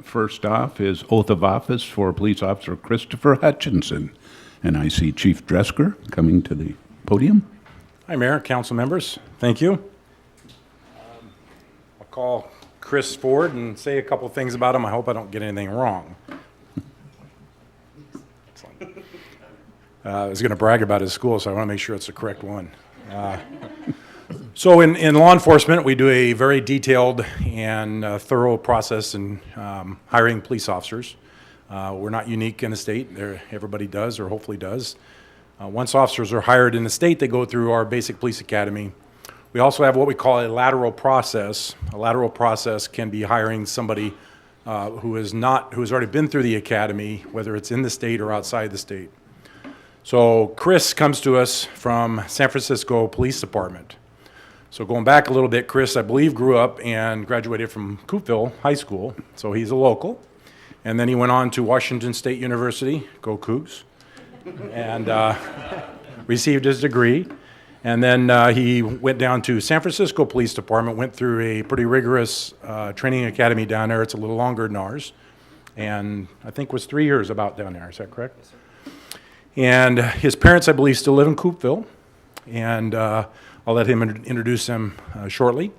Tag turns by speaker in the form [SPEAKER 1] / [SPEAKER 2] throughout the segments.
[SPEAKER 1] First off is oath of office for Police Officer Christopher Hutchinson. And I see Chief Dresker coming to the podium.
[SPEAKER 2] Hi, Mayor, council members. Thank you. Um, I'll call Chris Ford and say a couple things about him. I hope I don't get anything wrong. Excellent. Uh, I was going to brag about his school, so I want to make sure it's the correct one. Uh, So in, in law enforcement, we do a very detailed and uh, thorough process in um, hiring police officers. Uh, We're not unique in the state. There, everybody does, or hopefully does. Uh, Once officers are hired in the state, they go through our basic police academy. We also have what we call a lateral process. A lateral process can be hiring somebody uh, who is not, who has already been through the academy, whether it's in the state or outside the state. So Chris comes to us from San Francisco Police Department. So going back a little bit, Chris, I believe, grew up and graduated from Coopville High School, so he's a local. And then he went on to Washington State University, go Cougs, and uh, received his degree. And then uh, he went down to San Francisco Police Department, went through a pretty rigorous uh, training academy down there. It's a little longer than ours, and I think was three years about down there. Is that correct? And his parents, I believe, still live in Coopville, and uh, I'll let him in- introduce him uh, shortly.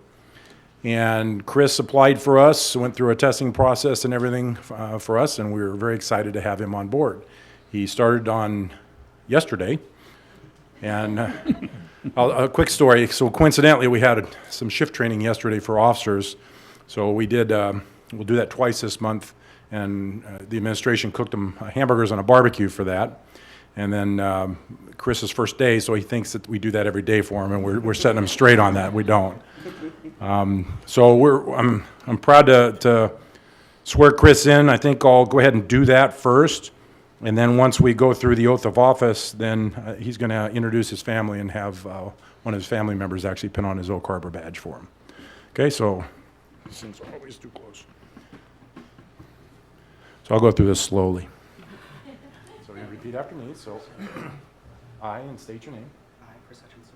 [SPEAKER 2] And Chris applied for us, went through a testing process and everything uh, for us, and we were very excited to have him on board. He started on yesterday, and uh, a a quick story. So coincidentally, we had some shift training yesterday for officers. So we did, um, we'll do that twice this month, and uh, the administration cooked them hamburgers on a barbecue for that. And then um, Chris's first day, so he thinks that we do that every day for him, and we're, we're setting him straight on that. We don't. Um, So we're, I'm, I'm proud to, to swear Chris in. I think I'll go ahead and do that first. And then once we go through the oath of office, then uh, he's going to introduce his family and have uh, one of his family members actually pin on his Oak Harbor badge for him. Okay, so, these things are always too close. So I'll go through this slowly. So you repeat after me, so I, and state your name,
[SPEAKER 3] I, Chris Hutchinson,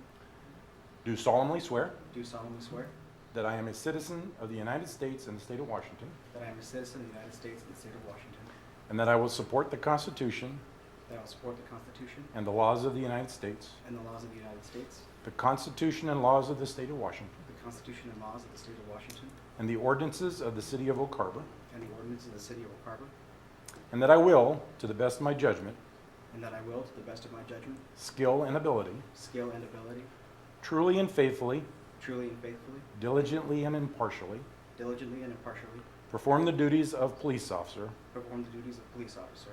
[SPEAKER 2] do solemnly swear
[SPEAKER 3] do solemnly swear
[SPEAKER 2] that I am a citizen of the United States and the state of Washington,
[SPEAKER 3] that I am a citizen of the United States and the state of Washington,
[SPEAKER 2] and that I will support the Constitution
[SPEAKER 3] that I will support the Constitution
[SPEAKER 2] and the laws of the United States,
[SPEAKER 3] and the laws of the United States,
[SPEAKER 2] the Constitution and laws of the state of Washington,
[SPEAKER 3] the Constitution and laws of the state of Washington,
[SPEAKER 2] and the ordinances of the city of Oak Harbor,
[SPEAKER 3] and the ordinances of the city of Oak Harbor,
[SPEAKER 2] and that I will, to the best of my judgment,
[SPEAKER 3] and that I will, to the best of my judgment,
[SPEAKER 2] skill, and ability,
[SPEAKER 3] skill, and ability,
[SPEAKER 2] truly and faithfully,
[SPEAKER 3] truly and faithfully,
[SPEAKER 2] diligently and impartially,
[SPEAKER 3] diligently and impartially,
[SPEAKER 2] perform the duties of police officer
[SPEAKER 3] perform the duties of police officer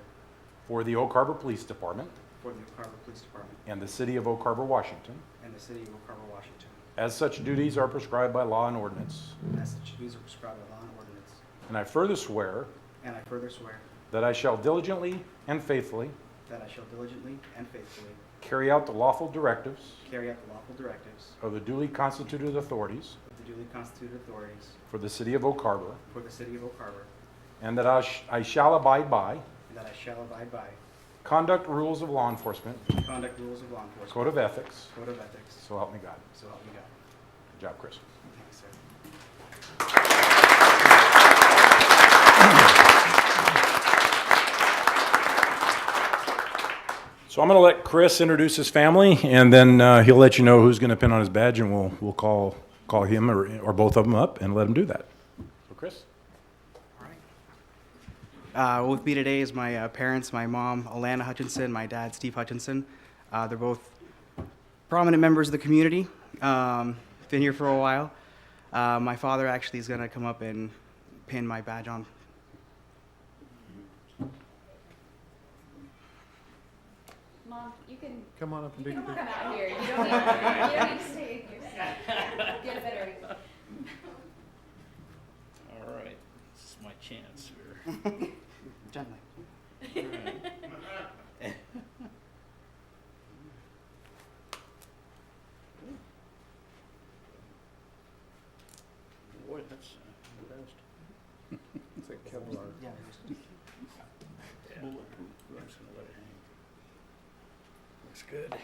[SPEAKER 2] for the Oak Harbor Police Department
[SPEAKER 3] for the Oak Harbor Police Department
[SPEAKER 2] and the city of Oak Harbor, Washington,
[SPEAKER 3] and the city of Oak Harbor, Washington,
[SPEAKER 2] as such duties are prescribed by law and ordinance.
[SPEAKER 3] as such duties are prescribed by law and ordinance.
[SPEAKER 2] And I further swear
[SPEAKER 3] And I further swear
[SPEAKER 2] that I shall diligently and faithfully
[SPEAKER 3] that I shall diligently and faithfully
[SPEAKER 2] carry out the lawful directives
[SPEAKER 3] carry out the lawful directives
[SPEAKER 2] of the duly constituted authorities
[SPEAKER 3] of the duly constituted authorities
[SPEAKER 2] for the city of Oak Harbor,
[SPEAKER 3] for the city of Oak Harbor,
[SPEAKER 2] and that I sh- I shall abide by
[SPEAKER 3] and that I shall abide by
[SPEAKER 2] conduct rules of law enforcement,
[SPEAKER 3] the conduct rules of law enforcement,
[SPEAKER 2] code of ethics,
[SPEAKER 3] code of ethics,
[SPEAKER 2] so help me God.
[SPEAKER 3] so help me God.
[SPEAKER 2] Good job, Chris.
[SPEAKER 3] Thank you, sir.
[SPEAKER 2] So I'm going to let Chris introduce his family, and then uh, he'll let you know who's going to pin on his badge, and we'll, we'll call, call him or, or both of them up and let him do that. So Chris?
[SPEAKER 3] All right. Uh, with me today is my uh, parents, my mom, Alana Hutchinson, my dad, Steve Hutchinson. Uh, they're both prominent members of the community. Um, been here for a while. Uh, my father actually is going to come up and pin my badge on.
[SPEAKER 4] Mom, you can
[SPEAKER 5] Come on up and
[SPEAKER 4] you
[SPEAKER 5] take a
[SPEAKER 4] can come
[SPEAKER 5] picture.
[SPEAKER 4] out here. You don't need, you don't need to stay in your seat. Get a better.
[SPEAKER 6] All right, this is my chance here.
[SPEAKER 3] Gently.
[SPEAKER 6] Boy, that's uh, the best.
[SPEAKER 5] It's like Kevlar.
[SPEAKER 3] Yeah,
[SPEAKER 6] Bulletproof. I'm just gonna let it hang. Looks good.